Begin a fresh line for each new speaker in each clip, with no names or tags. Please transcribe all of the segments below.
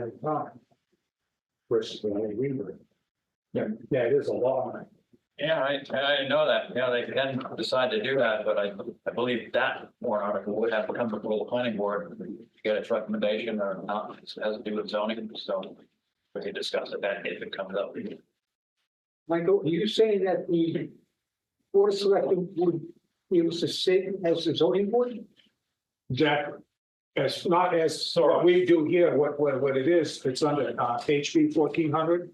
at a time. Versus when I read. Yeah, yeah, it is a law.
Yeah, I, I know that. Yeah, they can decide to do that, but I, I believe that warrant article would have to come before the planning board to get its recommendation or not. It has to do with zoning, so we can discuss it then if it comes up.
Michael, are you saying that the board of selectmen would use the same as the zoning board?
Exactly. It's not as, so we do here, what, what, what it is, it's under uh, HB fourteen hundred.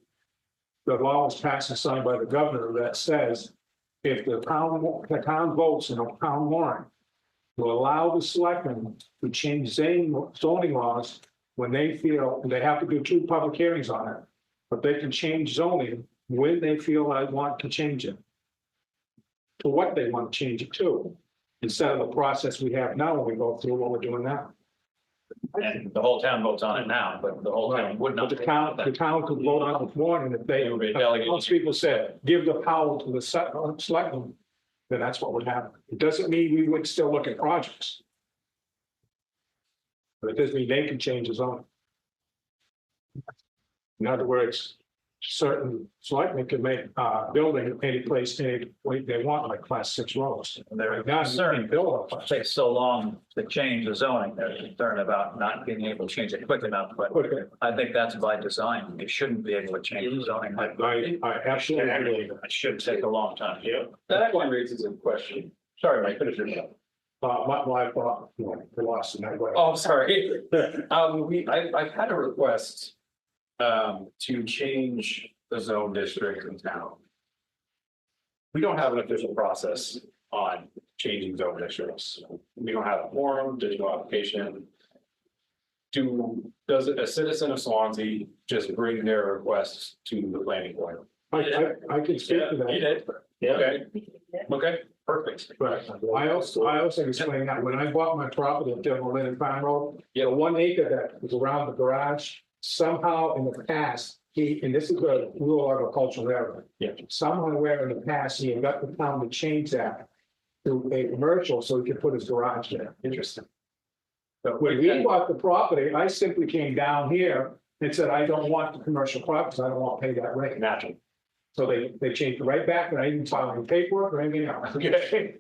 The law was passed and signed by the governor that says if the town, the town votes in a town warrant to allow the selectmen to change zoning, zoning laws when they feel, and they have to do two public hearings on it, but they can change zoning when they feel I want to change it. To what they want to change it to instead of the process we have now, when we go through what we're doing now.
And the whole town votes on it now, but the whole town would
But
not.
the town, the town could vote on this morning if they, uh,
It would be delegated.
most people said, give the power to the se- uh, selectmen, then that's what would happen. It doesn't mean we would still look at projects. But it does mean they can change his own. In other words, certain selectmen can make, uh, building any place, any way they want, like class six roads.
They're
Right now, you
concerned,
can't build a class
takes so long to change the zoning. They're concerned about not being able to change it quick enough, but uh,
Okay.
I think that's by design. It shouldn't be able to change the zoning.
I, I, I absolutely agree.
It should take a long time. Yeah.
That actually raises a question.
Sorry, Mike, finish your thought.
Uh, my, my, thought, you know, I lost in that way.
Oh, I'm sorry. Um, we, I, I've had a request um, to change the zone district in town. We don't have an official process on changing zone districts. We don't have a forum, there's no application. Do, does a citizen of Swansea just bring their requests to the planning board?
I, I, I can speak to
You
that,
did? Okay, okay, perfect.
but I also, I also explained that when I bought my property at Devil Lynn Farm Road,
Yeah.
the one acre that was around the garage, somehow in the past, he, and this is a rural agricultural area.
Yeah.
Somehow where in the past, he had got the town to change that to a commercial, so he could put his garage there. Interesting. But when we bought the property, I simply came down here and said, I don't want the commercial properties, I don't want to pay that rate.
Natural.
So they, they changed it right back, and I didn't file any paperwork or anything else.
Okay,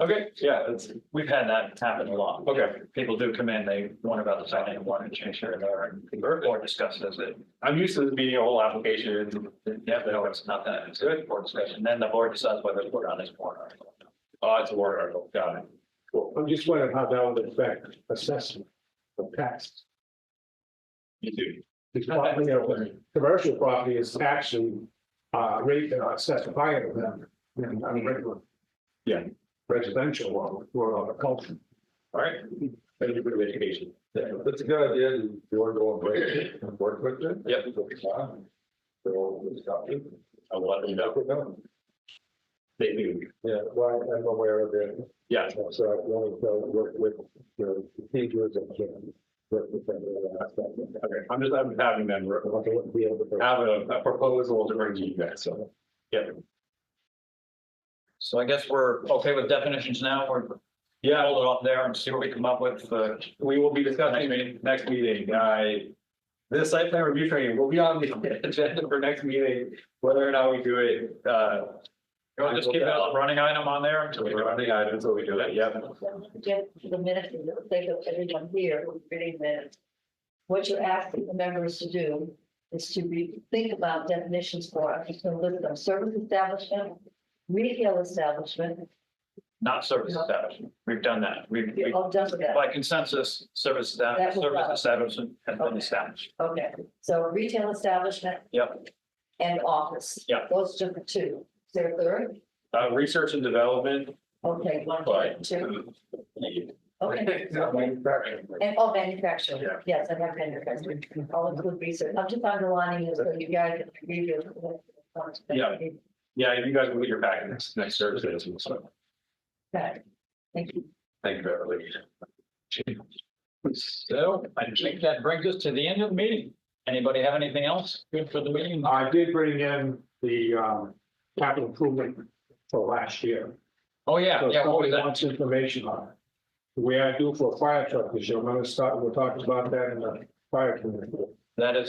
okay, yeah, that's,
We've had that happen a lot.
okay.
People do come in, they want about the sign, they want to change here and there, and or discuss this, it,
I'm used to this being a whole application.
yeah, they always not that, it's good for discussion, then the board decides whether to put on this board article.
Oh, it's a warrant article. Got it.
I'm just wondering how that would affect assessment of tax.
You do.
Because property, you know, commercial property is actually, uh, rate, uh, assessed higher than, than a regular.
Yeah.
Residential or, or agriculture.
All right. Thank you for the education.
That's a good idea. You want to go on break and work with them?
Yep.
So, we'll stop you.
I will let you know. They do.
Yeah, well, I'm aware of it.
Yeah.
So I want to work with the procedures and can work with them. in that aspect.
Okay. I'm just, I'm having them
I want to be able to.
have a a proposal to bring to you guys. So. Yeah.
So I guess we're okay with definitions now, we're, yeah, hold it off there and see what we come up with, uh,
We will be discussing it next meeting. I. This site plan review training will be on the agenda for next meeting, whether or not we do it, uh.
you want to just keep it as a running item on there until
So
we
we
do it.
run the items, so we do it. Yep.
Get the minutes, and it'll take up everyone here who's reading minutes. What you're asking the members to do is to re, think about definitions for, I'm just gonna list them, service establishment, retail establishment,
not service establishment, we've done that, we've,
you're
we-
all done with that,
by consensus, service
That was
establishment, service
done.
establishment has been established.
okay, so retail establishment.
Yep.
And office.
Yep.
Those are the two, is there a third?
Uh, research and development.
Okay, one,
Right.
two, okay.
Manufacturing.
And all manufacturing,
Yeah.
yes, I have manufacturing, all include research, I'm just underlining it so you guys can review.
Yeah. Yeah, you guys will get your back next, next Thursday. So,
Okay. Thank you.
thank you, Beverly.
So I think that brings us to the end of the meeting. Anybody have anything else good for the meeting?
I did bring in the, um, capital improvement for last year.
Oh, yeah,
So
yeah, what
somebody
was that?
wants information on it. The way I do for a fire truck, is you're gonna start, we'll talk about that in the fire committee.
That is